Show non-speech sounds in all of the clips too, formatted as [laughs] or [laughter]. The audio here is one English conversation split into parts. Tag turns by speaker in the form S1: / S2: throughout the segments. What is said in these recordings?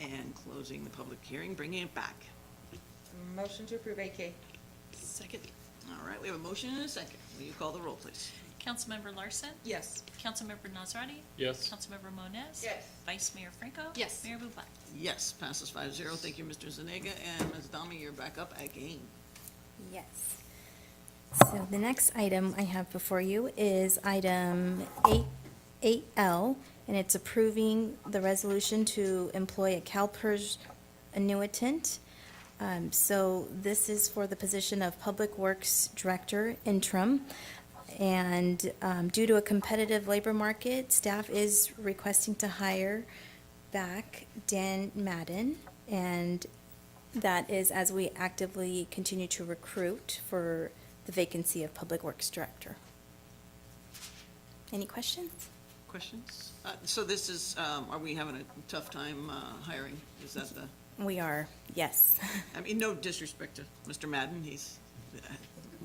S1: and closing the public hearing, bringing it back.
S2: Motion to approve AK.
S3: Second.
S1: All right, we have a motion and a second. Will you call the roll, please?
S4: Councilmember Larson?
S2: Yes.
S4: Councilmember Nazrati?
S5: Yes.
S4: Councilmember Moniz?
S2: Yes.
S4: Vice Mayor Franco?
S3: Yes.
S4: Mayor Bublak?
S1: Yes, passes five zero. Thank you, Mr. Zuniga, and Ms. Dami, you're back up again.
S6: Yes. So the next item I have before you is item eight, eight L, and it's approving the resolution to employ a CalPERS annuitant. Um, so this is for the position of Public Works Director interim. And, um, due to a competitive labor market, staff is requesting to hire back Dan Madden. And that is as we actively continue to recruit for the vacancy of Public Works Director. Any questions?
S1: Questions? Uh, So this is, um, are we having a tough time uh, hiring? Is that the,
S6: We are, yes. [laughs]
S1: I mean, no disrespect to Mr. Madden, he's uh,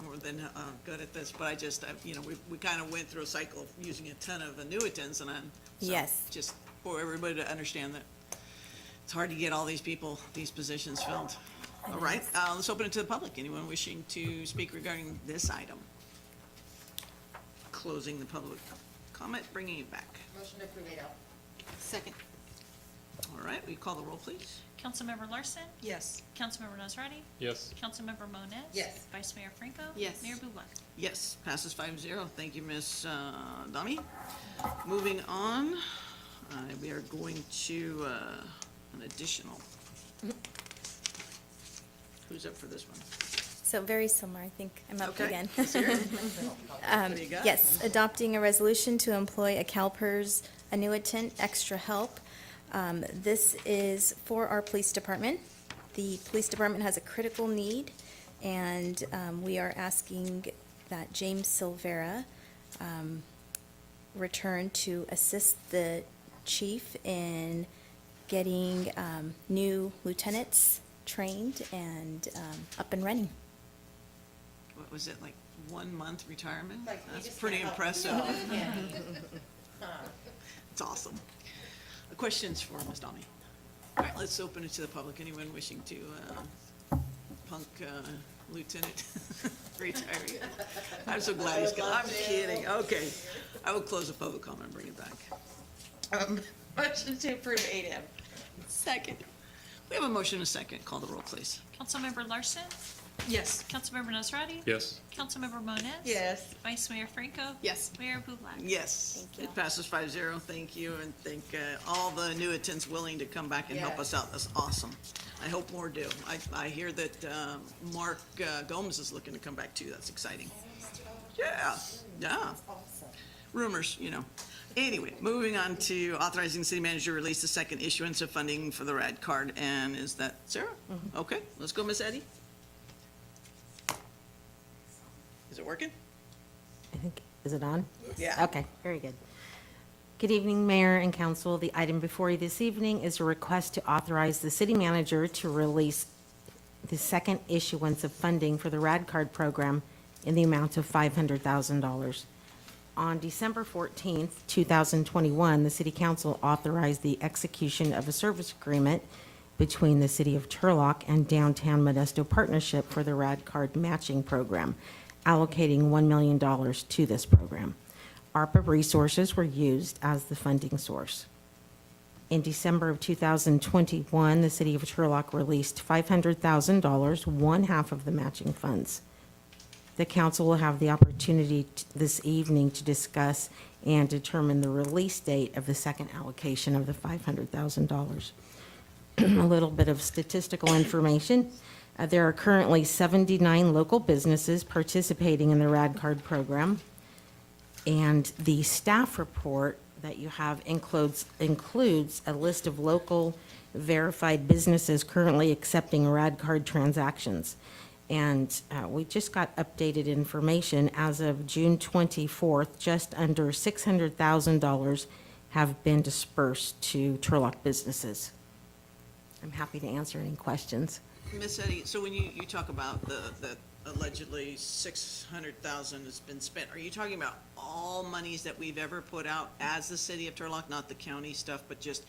S1: more than uh, good at this, but I just, I- you know, we, we kind of went through a cycle of using a ton of annuitants and I'm. so
S6: Yes.
S1: Just for everybody to understand that it's hard to get all these people, these positions filled. All right, uh, let's open it to the public. Anyone wishing to speak regarding this item? Closing the public comment, bringing it back.
S2: Motion to approve eight L.
S3: Second.
S1: All right, we call the roll, please?
S4: Councilmember Larson?
S2: Yes.
S4: Councilmember Nazrati?
S5: Yes.
S4: Councilmember Moniz?
S2: Yes.
S4: Vice Mayor Franco?
S3: Yes.
S4: Mayor Bublak?
S1: Yes, passes five zero. Thank you, Ms. uh, Dami. Moving on, uh, we are going to uh, an additional.
S6: Mm-hmm.
S1: Who's up for this one?
S6: So very similar, I think I'm up
S1: Okay.
S6: again. [laughs]
S1: Let's hear it.
S6: Um,
S1: What do you got?
S6: Yes, adopting a resolution to employ a CalPERS annuitant extra help. Um, This is for our police department. The police department has a critical need, and um, we are asking that James Silvera um, return to assist the chief in getting um, new lieutenants trained and um, up and running.
S1: What was it, like one month retirement?
S2: Like, you
S1: That's
S2: just oh.
S1: pretty
S2: can't help-
S1: impressive.
S2: No, you can't.
S1: [laughs] It's awesome. Questions for Ms. Dami? All right, let's open it to the public. Anyone wishing to uh, punk uh, Lieutenant [laughs] retiring? I'm so glad he's gone. I'm kidding. Okay. I will close the public comment and bring it back.
S2: Um, [laughs] Motion to approve eight M.
S3: Second.
S1: We have a motion and a second. Call the roll, please.
S4: Councilmember Larson?
S2: Yes.
S4: Councilmember Nazrati?
S5: Yes.
S4: Councilmember Moniz?
S2: Yes.
S4: Vice Mayor Franco?
S3: Yes.
S4: Mayor Bublak?
S1: Yes.
S6: Thank you.
S1: It passes five zero. Thank you, and thank uh, all the new attendants willing to come back and help
S2: Yeah.
S1: us out. That's awesome. I hope more do. I, I hear that um, Mark uh, Gomes is looking to come back too. That's exciting. Yeah, yeah. Rumors, you know. Anyway, moving on to authorizing the city manager to release the second issuance of funding for the RAD card, and is that Sarah?
S6: Mm-hmm.
S1: Okay, let's go, Miss Eddie. Is it working?
S7: I think, is it on?
S1: Yeah.
S7: Okay, very good. Good evening, Mayor and Council. The item before you this evening is a request to authorize the city manager to release the second issuance of funding for the RAD card program in the amount of $500,000. On December 14th, 2021, the city council authorized the execution of a service agreement between the city of Turlock and Downtown Modesto Partnership for the RAD card matching program, allocating $1 million to this program. ARPA resources were used as the funding source. In December of 2021, the city of Turlock released $500,000, one half of the matching funds. The council will have the opportunity t- this evening to discuss and determine the release date of the second allocation of the $500,000 [clears throat] a little bit of statistical information. Uh, There are currently 79 local businesses participating in the RAD card program. And the staff report that you have includes, includes a list of local verified businesses currently accepting RAD card transactions. And uh, we just got updated information as of June 24th, just under $600,000 have been dispersed to Turlock businesses. I'm happy to answer any questions.
S1: Miss Eddie, so when you, you talk about the, the allegedly six hundred thousand has been spent, are you talking about all monies that we've ever put out as the city of Turlock, not the county stuff, but just